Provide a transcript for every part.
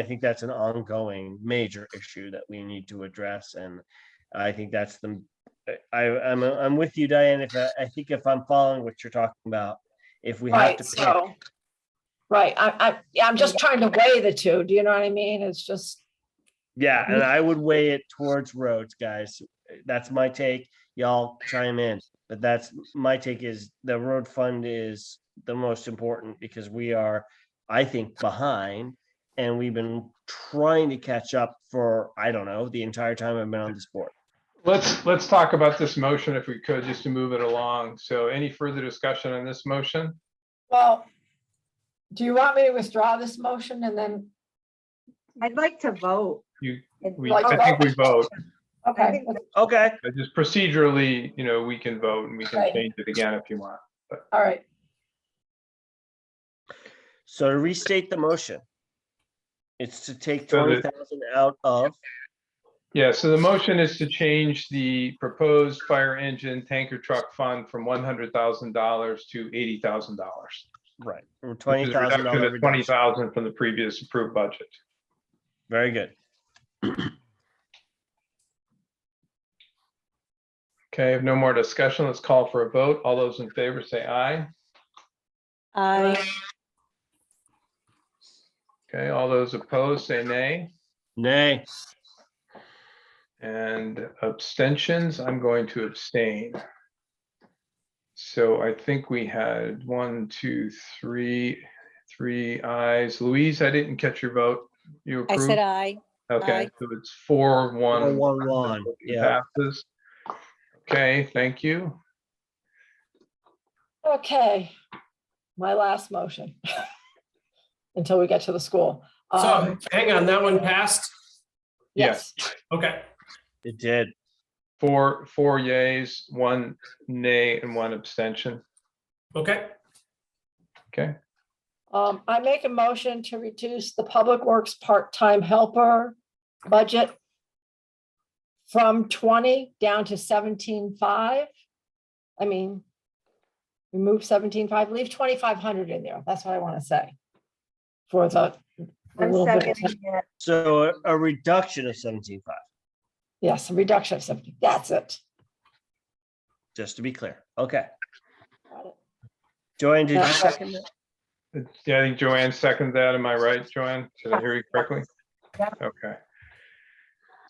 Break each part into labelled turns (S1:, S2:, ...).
S1: I think that's an ongoing major issue that we need to address, and I think that's the, I, I'm, I'm with you, Diane, if, uh, I I think if I'm following what you're talking about, if we have
S2: Right,
S1: to pick,
S2: so. Right, I, I, yeah, I'm just trying to weigh the two, do you know what I mean? It's just,
S1: yeah, and I would weigh it towards roads, guys. That's my take, y'all chime in, but that's, my take is the road fund is the most important because we are, I think, behind, and we've been trying to catch up for, I don't know, the entire time I've been on this board.
S3: Let's, let's talk about this motion if we could, just to move it along. So any further discussion on this motion?
S2: well, do you want me to withdraw this motion and then,
S4: I'd like to vote.
S3: You-
S4: It's
S3: We,
S4: like-
S3: I think we vote.
S4: I
S2: okay,
S4: think-
S1: Okay.
S3: But Just procedurally, you know, we can vote and we can
S2: Right.
S3: change it again if you want.
S2: all right,
S1: So to restate the motion. It's to take
S3: So
S1: twenty
S3: the-
S1: thousand out of,
S3: Yeah, so the motion is to change the proposed fire engine tanker truck fund from one hundred thousand dollars to eighty thousand dollars.
S1: right, or twenty thousand dollar
S3: Twenty
S1: reduction.
S3: thousand from the previous approved budget.
S1: Very good.
S3: Okay, if no more discussion, let's call for a vote. All those in favor say aye.
S4: I,
S3: Okay, all those opposed say nay.
S1: Nay,
S3: And abstentions, I'm going to abstain. So I think we had one, two, three, three ayes. Louise, I didn't catch your vote. You
S4: I
S3: approved?
S4: said I.
S3: Okay,
S4: aye.
S3: so it's four,
S1: one,
S3: one.
S1: one, one,
S3: motion
S1: yeah,
S3: Passes. Okay, thank you.
S2: okay. My last motion. Until we get to the school.
S5: So,
S2: Um,
S5: hang on, that one passed?
S2: yes,
S5: Okay,
S1: it did.
S3: Four, four yays, one nay, and one abstention.
S5: okay.
S3: Okay,
S2: um, I make a motion to reduce the public works part-time helper budget. From twenty down to seventeen-five. I mean. Remove seventeen-five, leave twenty-five hundred in there, that's what I want to say. For the. the
S4: I'm
S2: little bit of-
S4: seconding it.
S1: So a- a reduction of seventeen five,
S2: Yes, a reduction of seventy, that's it.
S1: just to be clear. Okay.
S2: Got it.
S1: Joanne, did you
S2: Yeah.
S1: second that?
S3: yeah, I think Joanne seconded that. Am I right, Joanne? Did I hear you correctly?
S4: Yeah.
S3: Okay.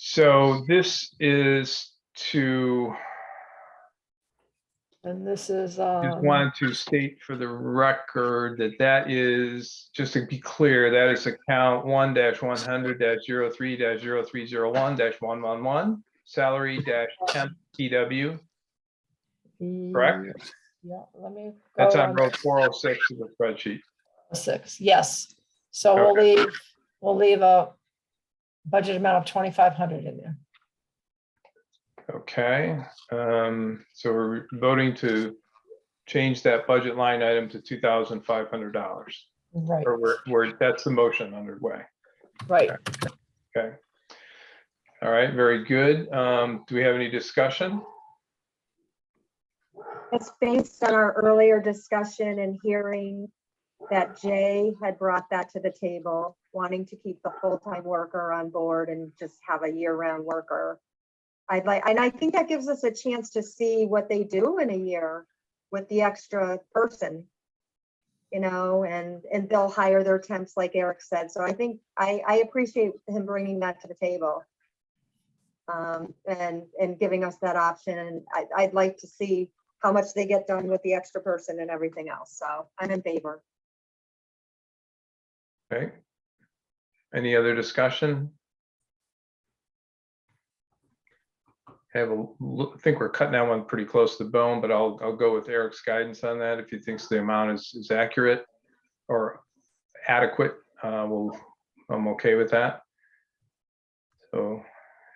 S3: So this is to,
S2: And this is,
S3: just
S2: um,
S3: wanted to state for the record that that is, just to be clear, that is account one dash one hundred dash zero three dash zero three zero one dash one one one, salary dash temp TW. correct?
S2: Yeah, let me.
S3: That's
S2: go
S3: on row four oh six of the spreadsheet.
S2: Six, yes. So we'll leave, we'll leave a budget amount of twenty-five hundred in there.
S3: Okay, um, so we're voting to change that budget line item to two thousand five hundred dollars.
S2: Right,
S3: Or we're, we're, that's the motion underway.
S2: right.
S3: Okay. All right, very good. Um, do we have any discussion?
S6: It's based on our earlier discussion and hearing that Jay had brought that to the table, wanting to keep the full-time worker on board and just have a year-round worker. I'd like, and I think that gives us a chance to see what they do in a year with the extra person. You know, and, and they'll hire their temps like Eric said. So I think, I, I appreciate him bringing that to the table. Um, and, and giving us that option. And I, I'd like to see how much they get done with the extra person and everything else. So I'm in favor.
S3: Okay. Any other discussion? Have a, look- I think we're cutting that one pretty close to the bone, but I'll, I'll go with Eric's guidance on that. If he thinks the amount is, is accurate or adequate, uh, we'll, I'm okay with that. So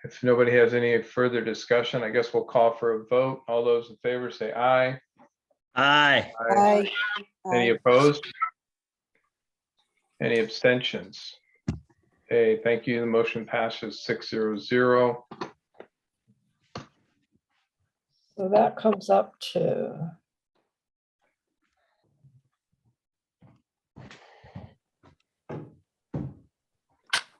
S3: if nobody has any further discussion, I guess we'll call for a vote. All those in favor say aye.
S1: Aye,
S4: I.
S3: Any opposed? Any abstentions? Okay, thank you. The motion passes six zero zero.
S2: So that comes up to